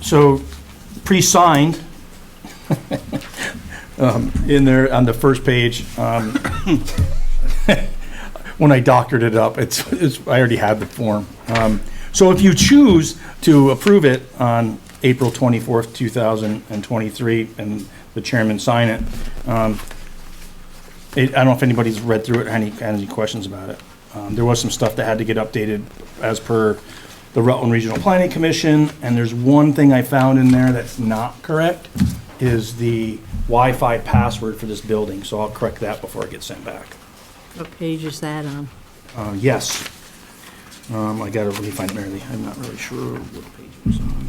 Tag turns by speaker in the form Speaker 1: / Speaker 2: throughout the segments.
Speaker 1: So pre-signed um, in there on the first page. um, When I doctored it up, it's, it's, I already had the form. Um, So if you choose to approve it on April 24th, 2023, and the chairman sign it, um, it, I don't know if anybody's read through it, had any, had any questions about it. Um, there was some stuff that had to get updated as per the Rutland Regional Planning Commission, and there's one thing I found in there that's not correct, is the Wi-Fi password for this building, so I'll correct that before it gets sent back.
Speaker 2: What page is that on?
Speaker 1: Uh, yes. Um, I gotta really find Mary Lee, I'm not really sure what page it was on.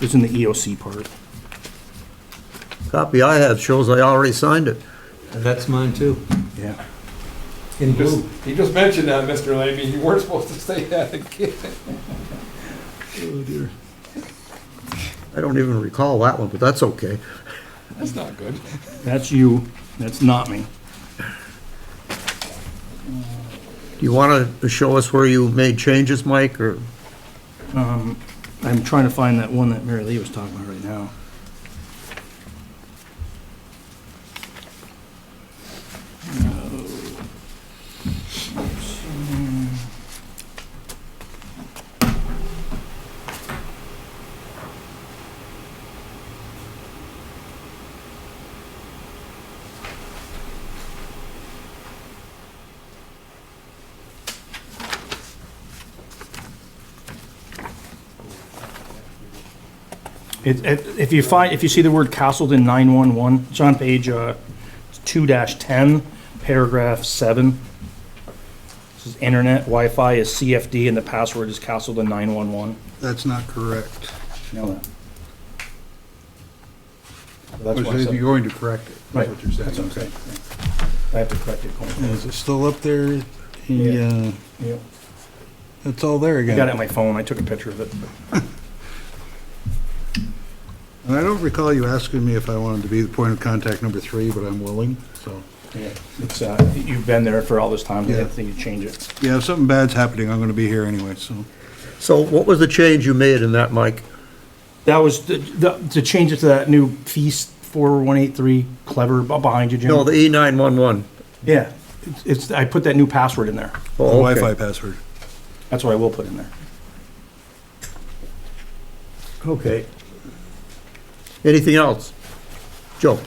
Speaker 1: It's in the EOC part.
Speaker 3: Copy I have shows I already signed it.
Speaker 4: That's mine too,
Speaker 1: Yeah.
Speaker 4: in
Speaker 5: He just,
Speaker 4: blue.
Speaker 5: he just mentioned that, Mr. Lamy, you weren't supposed to say that again.
Speaker 3: I don't even recall that one, but that's okay.
Speaker 5: That's not good.
Speaker 1: That's you, that's not me.
Speaker 3: Do you want to show us where you made changes, Mike, or?
Speaker 1: I'm trying to find that one that Mary Lee was talking about right now. It, it, if you find, if you see the word Castleton nine one one, it's on page, uh, two ten, paragraph seven. This is internet, Wi-Fi is CFD and the password is Castleton nine one one.
Speaker 6: That's not correct.
Speaker 1: Know that.
Speaker 6: You're
Speaker 1: That's why I said,
Speaker 6: going to correct it. That's
Speaker 1: Right,
Speaker 6: what you're
Speaker 1: that's
Speaker 6: saying.
Speaker 1: what I'm saying. I have to correct it. Colin.
Speaker 6: Is it still up there?
Speaker 1: Yeah.
Speaker 6: Yeah,
Speaker 1: Yep.
Speaker 6: it's all there
Speaker 1: I
Speaker 6: again.
Speaker 1: got it on my phone, I took a picture of it.
Speaker 6: And I don't recall you asking me if I wanted to be the point of contact number three, but I'm willing, so.
Speaker 1: Yeah, It's, uh, you've been there for all this time, I
Speaker 6: Yeah.
Speaker 1: didn't think you'd change it.
Speaker 6: Yeah, if something bad's happening, I'm going to be here anyway, so.
Speaker 3: So what was the change you made in that, Mike?
Speaker 1: That was, the- the, to change it to that new feast four one eight three clever b- behind you, Jim.
Speaker 3: No, the E E911.
Speaker 1: Yeah, it's- it's, I put that new password in there.
Speaker 3: Oh,
Speaker 6: The
Speaker 3: okay.
Speaker 6: Wi-Fi password.
Speaker 1: That's what I will put in there.
Speaker 3: Okay. Anything else? Joe?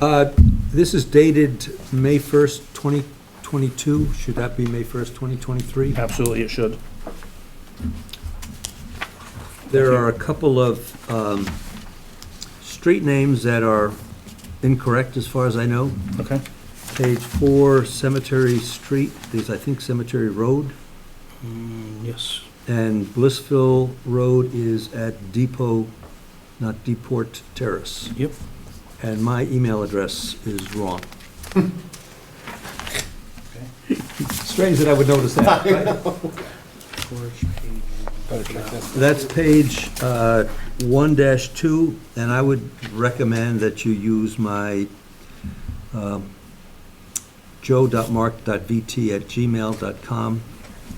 Speaker 4: Uh, This is dated May 1st, 2022. Should that be May 1st, 2023?
Speaker 1: Absolutely, it should.
Speaker 4: There are a couple of um, street names that are incorrect, as far as I know.
Speaker 1: Okay.
Speaker 4: Page four, Cemetery Street, there's, I think, Cemetery Road,
Speaker 1: Mm, Yes.
Speaker 4: and Blissville Road is at Depot, not Deport Terrace.
Speaker 1: Yep.
Speaker 4: And my email address is wrong. Strange that I would notice that. That's page uh, 1-2, and I would recommend that you use my um, joe.mark.vt at gmail.com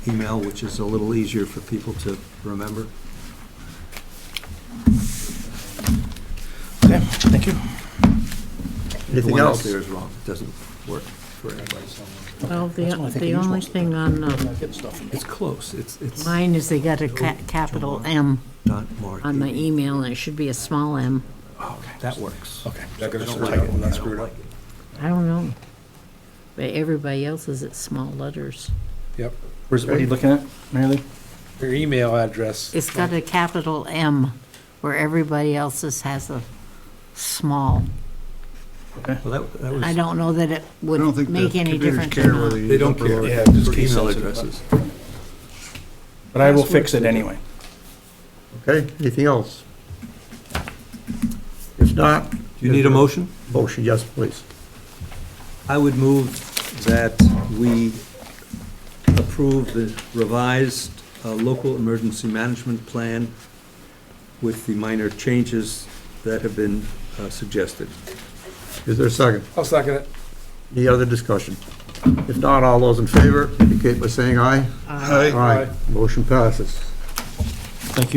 Speaker 4: email, which is a little easier for people to remember.
Speaker 1: Okay, thank you.
Speaker 3: Anything
Speaker 4: The one
Speaker 3: else?
Speaker 4: that's there is wrong, doesn't work for anybody.
Speaker 2: Well,
Speaker 1: That's what I think
Speaker 2: the, the
Speaker 1: it is
Speaker 2: only
Speaker 1: most of
Speaker 2: thing on uh,
Speaker 1: Good stuff.
Speaker 4: It's close, it's, it's
Speaker 2: mine is they got a ca- capital M
Speaker 4: not marked.
Speaker 2: on my email, and it should be a small m.
Speaker 4: That works.
Speaker 1: Okay.
Speaker 4: I
Speaker 6: gonna
Speaker 4: don't
Speaker 6: survive
Speaker 4: like it.
Speaker 6: when I
Speaker 4: I don't
Speaker 6: screwed up?
Speaker 4: like it.
Speaker 2: I don't know. But everybody else is at small letters.
Speaker 5: Yep,
Speaker 1: Where's, what are you looking at, Mary Lee?
Speaker 5: your email address.
Speaker 2: It's got a capital M, where everybody else's has a small.
Speaker 4: Well, that, that
Speaker 2: I
Speaker 4: was,
Speaker 2: don't know that it
Speaker 6: I don't
Speaker 2: would
Speaker 6: think
Speaker 2: make
Speaker 6: the
Speaker 2: any
Speaker 6: computers
Speaker 2: difference
Speaker 6: care
Speaker 2: or not.
Speaker 6: whether
Speaker 4: they
Speaker 6: you
Speaker 4: don't care.
Speaker 6: upload.
Speaker 1: Yeah, just
Speaker 4: for
Speaker 1: case
Speaker 4: email
Speaker 1: sensitive.
Speaker 4: addresses.
Speaker 1: But I will fix it anyway.
Speaker 3: Okay, anything else? If not,
Speaker 4: You need a motion?
Speaker 3: motion, yes, please.
Speaker 4: I would move that we approve the revised uh, local emergency management plan with the minor changes that have been uh, suggested.
Speaker 3: Is there a second?
Speaker 5: I'll second it.
Speaker 3: Any other discussion?
Speaker 2: Uh,
Speaker 3: If not, all those in favor indicate by saying aye.
Speaker 6: Hi.
Speaker 3: Motion passes.